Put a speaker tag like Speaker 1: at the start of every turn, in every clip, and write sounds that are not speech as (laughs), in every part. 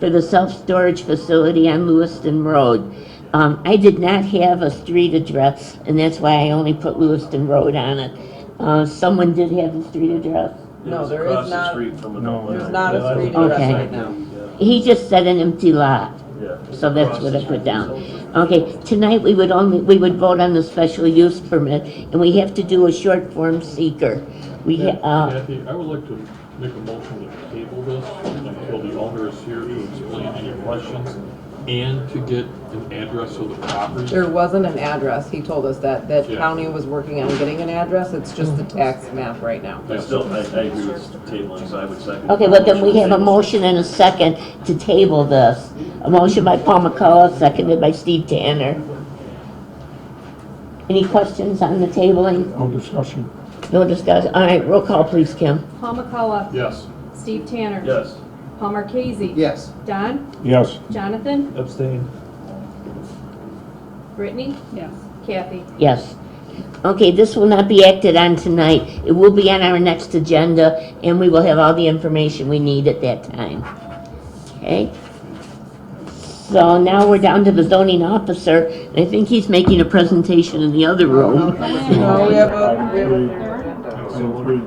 Speaker 1: for the self-storage facility on Lewiston Road. Um, I did not have a street address, and that's why I only put Lewiston Road on it. Uh, someone did have a street address.
Speaker 2: No,
Speaker 3: It's
Speaker 2: there
Speaker 3: across
Speaker 2: is
Speaker 3: the
Speaker 2: not-
Speaker 3: street from
Speaker 4: No.
Speaker 3: another
Speaker 2: There's not a
Speaker 3: one.
Speaker 2: street
Speaker 3: Yeah,
Speaker 2: address
Speaker 1: Okay.
Speaker 2: right now.
Speaker 1: He just said an empty lot.
Speaker 3: Yeah.
Speaker 1: So that's
Speaker 3: Across
Speaker 1: what
Speaker 3: the
Speaker 1: I put
Speaker 3: street.
Speaker 1: down. Okay, tonight we would only, we would vote on the special use permit, and we have to do a short form seeker. We,
Speaker 5: Yeah,
Speaker 1: uh,
Speaker 5: Kathy, I would like to make a motion to table this until the owner is here to explain any questions and to get an address of the property.
Speaker 2: There wasn't an address, he told us that, that
Speaker 5: Yeah.
Speaker 2: county was working on getting an address, it's just the tax map right now.
Speaker 3: I still, I, I agree with tabling, so I would second.
Speaker 1: okay, well then we have a motion and a second to table this. A motion by Paul McCullough, seconded by Steve Tanner. Any questions on the tabling?
Speaker 4: No discussion.
Speaker 1: No discussion? All right, roll call please, Kim.
Speaker 6: Paul McCullough.
Speaker 5: Yes,
Speaker 6: Steve Tanner.
Speaker 3: Yes,
Speaker 6: Paul Marquesi.
Speaker 7: Yes.
Speaker 6: Don,
Speaker 4: Yes,
Speaker 6: Jonathan,
Speaker 7: Abstain.
Speaker 6: Brittany. Yes. Kathy.
Speaker 1: Yes. Okay, this will not be acted on tonight. It will be on our next agenda, and we will have all the information we need at that time. Okay? So now we're down to the zoning officer, and I think he's making a presentation in the other room.
Speaker 2: No, we have a, we have a-
Speaker 4: item three.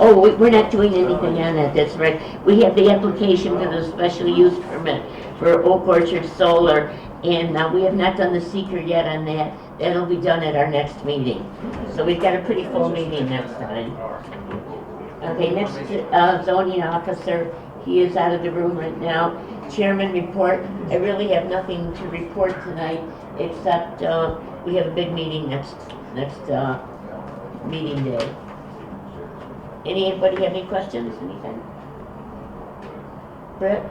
Speaker 1: Oh, we- we're not doing anything on that, that's right. We have the application for the special use permit for Oak Orchard Solar, and uh, we have not done the seeker yet on that. That'll be done at our next meeting. So we've got a pretty full meeting next time. Okay, next uh, zoning officer, he is out of the room right now. Chairman report, I really have nothing to report tonight, except uh, we have a big meeting next, next uh, meeting day. Anybody have any questions, anything? Brett?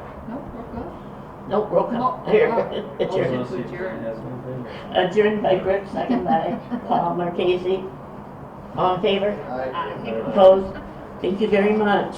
Speaker 1: Nope, roll call.
Speaker 8: Nope,
Speaker 1: Here, (laughs)
Speaker 8: oh.
Speaker 1: adjourned.
Speaker 8: Adjourned.
Speaker 1: Adjourned by Brett, second by Paul Marquesi. All in favor? Opposed? Thank you very much.